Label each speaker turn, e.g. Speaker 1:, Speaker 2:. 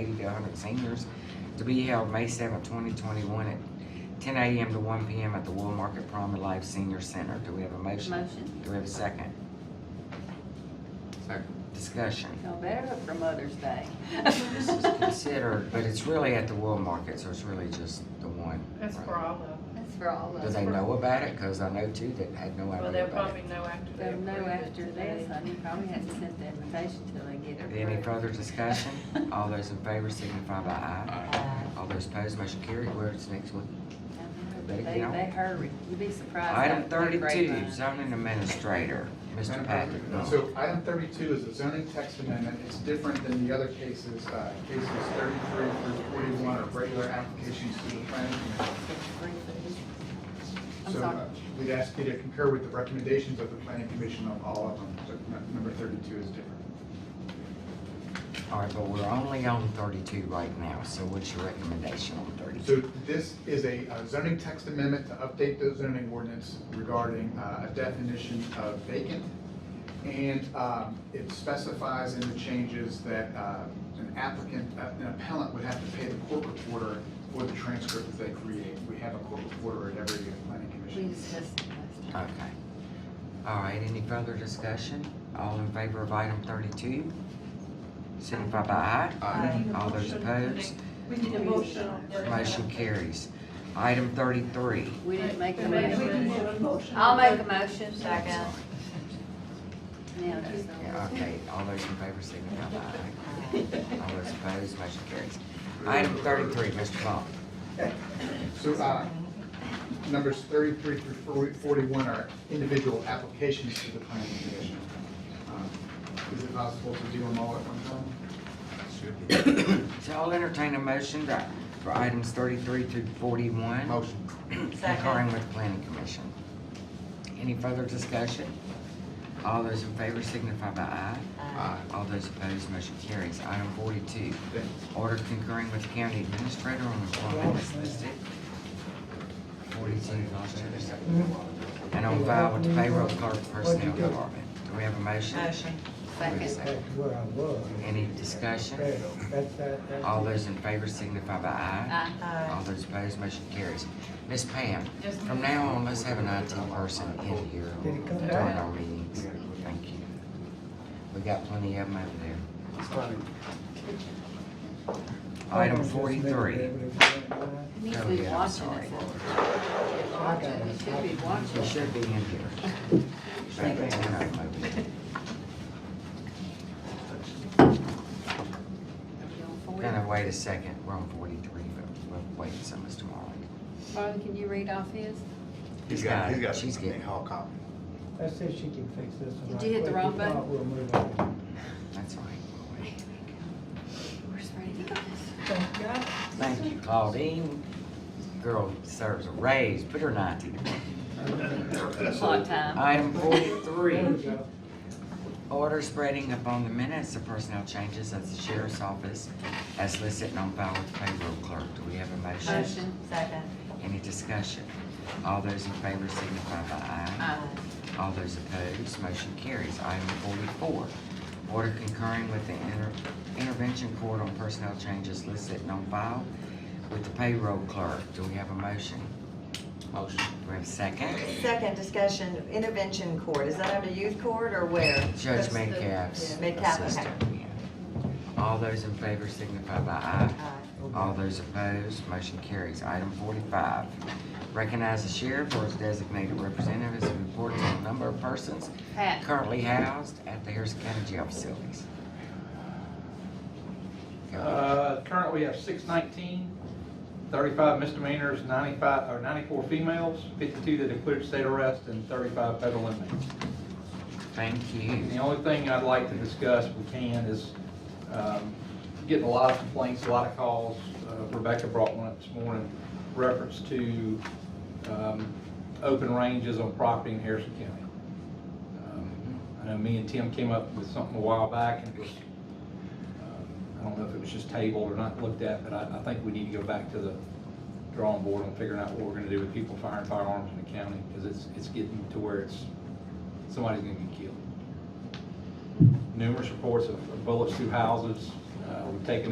Speaker 1: Young and Seniors to be held May seventh, twenty twenty-one at ten AM to one PM at the Wool Market Promenade Life Senior Center. Do we have a motion?
Speaker 2: Motion,
Speaker 1: Do we have a second?
Speaker 3: Second.
Speaker 1: Discussion.
Speaker 2: y'all better hope for Mother's Day.
Speaker 1: This is considered, but it's really at the Wool Market, so it's really just the one.
Speaker 4: That's
Speaker 1: right?
Speaker 4: Bravo.
Speaker 2: That's for all of
Speaker 1: Do
Speaker 2: us.
Speaker 1: they know about it? Cause I know two that had no
Speaker 4: Well,
Speaker 1: idea
Speaker 4: they'll
Speaker 1: about
Speaker 4: probably
Speaker 1: it.
Speaker 4: know after they
Speaker 2: They'll
Speaker 4: approve
Speaker 2: know
Speaker 4: it
Speaker 2: after
Speaker 4: today.
Speaker 2: this, I mean, probably hadn't sent the invitation till they get it.
Speaker 1: Any
Speaker 2: approved.
Speaker 1: further discussion? All those in favor signify by aye. All those opposed, motion carried. Where's next one?
Speaker 2: They, they hurry, you'd be surprised.
Speaker 1: Item
Speaker 2: how quick
Speaker 1: thirty-two,
Speaker 2: grapevine.
Speaker 1: zoning administrator, Mr. Patrick. Noel.
Speaker 3: So item thirty-two is a zoning text amendment. It's different than the other cases. Uh, Cases thirty-three through forty-one are regular applications to the planning commission.
Speaker 2: I'm
Speaker 3: So
Speaker 2: sorry.
Speaker 3: uh, we'd ask you to concur with the recommendations of the planning commission on all of them. So n- number thirty-two is different.
Speaker 1: All right, but we're only on thirty-two right now, so what's your recommendation on
Speaker 3: So
Speaker 1: thirty-two?
Speaker 3: this is a uh, zoning text amendment to update the zoning ordinance regarding uh, a definition of vacant. And um, it specifies in the changes that uh, an applicant, uh, an appellant would have to pay the court reporter for the transcript that they create. We have a court reporter at every planning
Speaker 2: We
Speaker 3: commission.
Speaker 2: discussed it last
Speaker 1: Okay.
Speaker 2: time.
Speaker 1: All right, any further discussion? All in favor of item thirty-two? Signify by aye.
Speaker 2: Aye.
Speaker 1: All those opposed,
Speaker 5: We need a motion on thirty.
Speaker 1: motion carries. Item thirty-three,
Speaker 2: We didn't make the
Speaker 5: We need
Speaker 2: motion.
Speaker 5: a motion.
Speaker 2: I'll make a motion.
Speaker 4: Second.
Speaker 2: Now, just don't-
Speaker 1: Yeah, okay, all those in favor signify by aye. All those opposed, motion carries. Item thirty-three, Mr. Ball.
Speaker 3: So uh, numbers thirty-three through 40 forty-one are individual applications to the planning commission. Um, Is it possible to do them all at one time?
Speaker 1: So I'll entertain a motion to- for items thirty-three through forty-one.
Speaker 3: Motion.
Speaker 1: Concurring with planning commission. Any further discussion? All those in favor signify by aye.
Speaker 3: Aye.
Speaker 1: All those opposed, motion carries. Item forty-two,
Speaker 3: Thank you.
Speaker 1: order concurring with county administrator on employment as listed. Forty-two, Gloucester. And on file with the payroll clerk personnel department. Do we have a motion?
Speaker 6: Motion.
Speaker 2: Second.
Speaker 7: That's where I was.
Speaker 1: Any discussion?
Speaker 7: That's, that, that's.
Speaker 1: All those in favor signify by aye.
Speaker 2: Aye.
Speaker 1: All
Speaker 6: Aye.
Speaker 1: those opposed, motion carries. Miss Pam,
Speaker 4: Yes, ma'am.
Speaker 1: from now on, let's have an IT person in here
Speaker 7: Did it come
Speaker 1: during
Speaker 7: back?
Speaker 1: our meetings. Thank you. We got plenty of them over there.
Speaker 3: It's funny.
Speaker 1: Item forty-three.
Speaker 2: He needs
Speaker 1: Oh,
Speaker 2: to be
Speaker 1: yeah, I'm
Speaker 2: watching
Speaker 1: sorry.
Speaker 2: us. Watching, he should be
Speaker 1: You
Speaker 2: watching.
Speaker 1: should be in here. Thank you. And I'm over there. Gonna wait a second, we're on forty-three, but we'll wait some as tomorrow.
Speaker 2: Farley, can you read off his?
Speaker 1: He's got it. She's getting,
Speaker 3: hall copy.
Speaker 7: Let's see if she can fix this one.
Speaker 2: Did
Speaker 7: right
Speaker 2: you hit the
Speaker 7: quick.
Speaker 2: wrong
Speaker 7: If not,
Speaker 2: button?
Speaker 7: We'll move on.
Speaker 1: that's all right. We'll wait.
Speaker 2: Where's Freddie?
Speaker 6: Thank God.
Speaker 1: Thank you, Claudine. Girl deserves a raise, put her ninety to work.
Speaker 2: Clock time.
Speaker 1: Item
Speaker 7: There we
Speaker 1: forty-three,
Speaker 7: go.
Speaker 1: order spreading upon the minutes of personnel changes at the sheriff's office as listed and on file with payroll clerk. Do we have a motion?
Speaker 2: Motion.
Speaker 6: Second.
Speaker 1: Any discussion? All those in favor signify by aye.
Speaker 2: Aye.
Speaker 1: All those opposed, motion carries. Item forty-four, order concurring with the inter- intervention court on personnel changes listed and on file with the payroll clerk. Do we have a motion? Motion. Do we have a second?
Speaker 6: Second discussion, intervention court, is that under youth court or where?
Speaker 1: Judge
Speaker 6: That's-
Speaker 1: Metcalf's
Speaker 6: yeah, Metcalf, okay.
Speaker 1: assistant. All those in favor signify by aye.
Speaker 6: Aye.
Speaker 1: All those opposed, motion carries. Item forty-five, recognize the sheriff or his designated representative as a report to the number of persons
Speaker 2: Pat,
Speaker 1: currently housed at the Harrison County Jail facilities. Go.
Speaker 8: Uh, Currently, we have 619, 35 misdemeanors, 95, or 94 females, 52 that include state arrest, and 35 federal inmates.
Speaker 1: Thank
Speaker 8: The
Speaker 1: you.
Speaker 8: only thing I'd like to discuss, if we can, is um, getting a lot of complaints, a lot of calls. Uh, Rebecca brought one up this morning, reference to um, open ranges on property in Harrison County. Um, I know me and Tim came up with something a while back, and it was, um, I don't know if it was just tabled or not looked at, but I, I think we need to go back to the drawing board on figuring out what we're gonna do with people firing firearms in the county, because it's, it's getting to where it's, somebody's gonna get killed numerous reports of bullets through houses. Uh, We've taken